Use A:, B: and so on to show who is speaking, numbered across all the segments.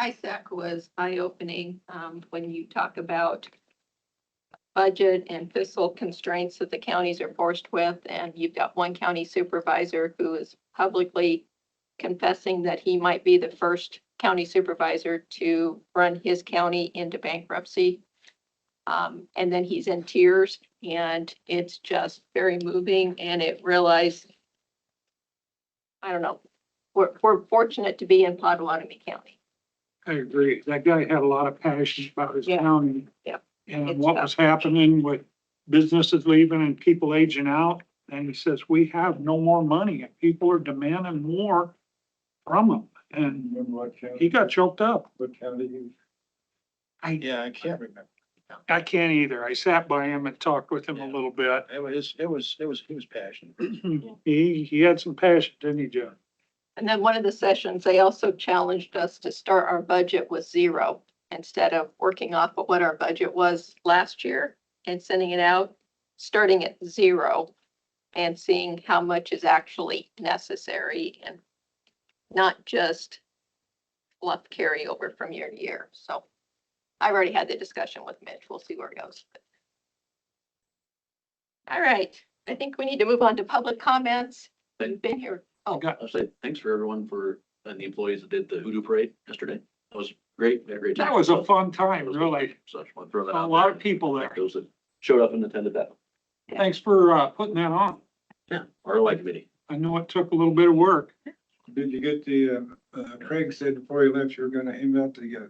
A: ISAC was eye-opening, um, when you talk about budget and fiscal constraints that the counties are forced with, and you've got one county supervisor who is publicly confessing that he might be the first county supervisor to run his county into bankruptcy. Um, and then he's in tears and it's just very moving and it realized, I don't know, we're, we're fortunate to be in Potawatomi County.
B: I agree. That guy had a lot of passion about his
A: Yeah.
B: county.
A: Yep.
B: And
A: It's
B: what was happening with businesses leaving and people aging out. And he says, we have no more money and people are demanding more from them. And
C: Remember what county,
B: he got choked up.
C: what county you?
B: I,
C: Yeah, I can't remember.
B: I can't either. I sat by him and talked with him a
C: Yeah.
B: little bit.
C: It was, it was, it was, he was passionate.
B: He, he had some passion, didn't he, John?
A: And then one of the sessions, they also challenged us to start our budget with zero instead of working off of what our budget was last year and sending it out, starting at zero and seeing how much is actually necessary and not just fluff carryover from year to year. So I've already had the discussion with Mitch. We'll see where it goes. All right, I think we need to move on to public comments. We've been here
B: I got,
D: I'll say thanks for everyone for, and the employees that did the hoodoo parade yesterday. That was great. We had a great time.
B: that was a
D: So,
B: fun time, really.
D: So I just want to throw that out.
B: A lot
D: there.
B: of people there.
D: Those that showed up and attended that.
B: Thanks for, uh, putting that on.
D: Yeah, ROI committee.
B: I know it took a little bit of work.
C: Did you get the, uh, uh, Craig said before he left, you were gonna hand out the uh,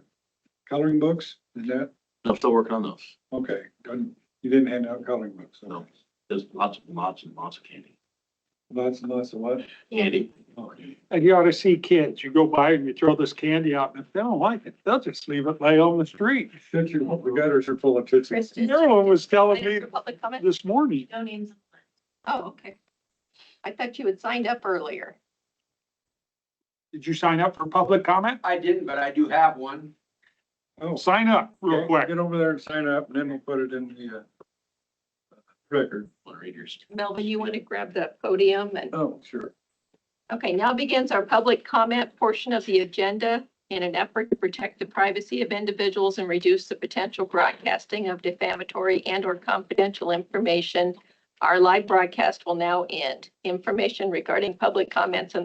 C: coloring books, is that,
D: I'm still working on those.
C: okay, done. you didn't hand out coloring books, okay.
D: No. There's lots and lots and lots of candy.
C: Lots and lots of what?
D: Candy.
C: Okay.
B: And you ought to see kids, you go by and you throw this candy out, and if they don't like it, they'll just leave it lay on the street.
C: Tootsie, the gutters are full of tootsie.
A: Kristen.
B: Marilyn was telling
A: Ready
B: me
A: for public comment?
B: this morning,
E: No names. on the list.
A: Oh, okay. I thought you had signed up earlier.
B: did you sign up for public comment?
F: I didn't, but I do have one.
C: Oh,
B: Sign up real
C: okay,
B: quick.
C: Get over there and sign up, and then we'll put it in the, uh, record.
D: Want to read yours?
A: Melvin, you want to grab the podium and,
C: Oh, sure.
A: okay, now begins our public comment portion of the agenda in an effort to protect the privacy of individuals and reduce the potential broadcasting of defamatory and or confidential information. Our live broadcast will now end. Information regarding public comments and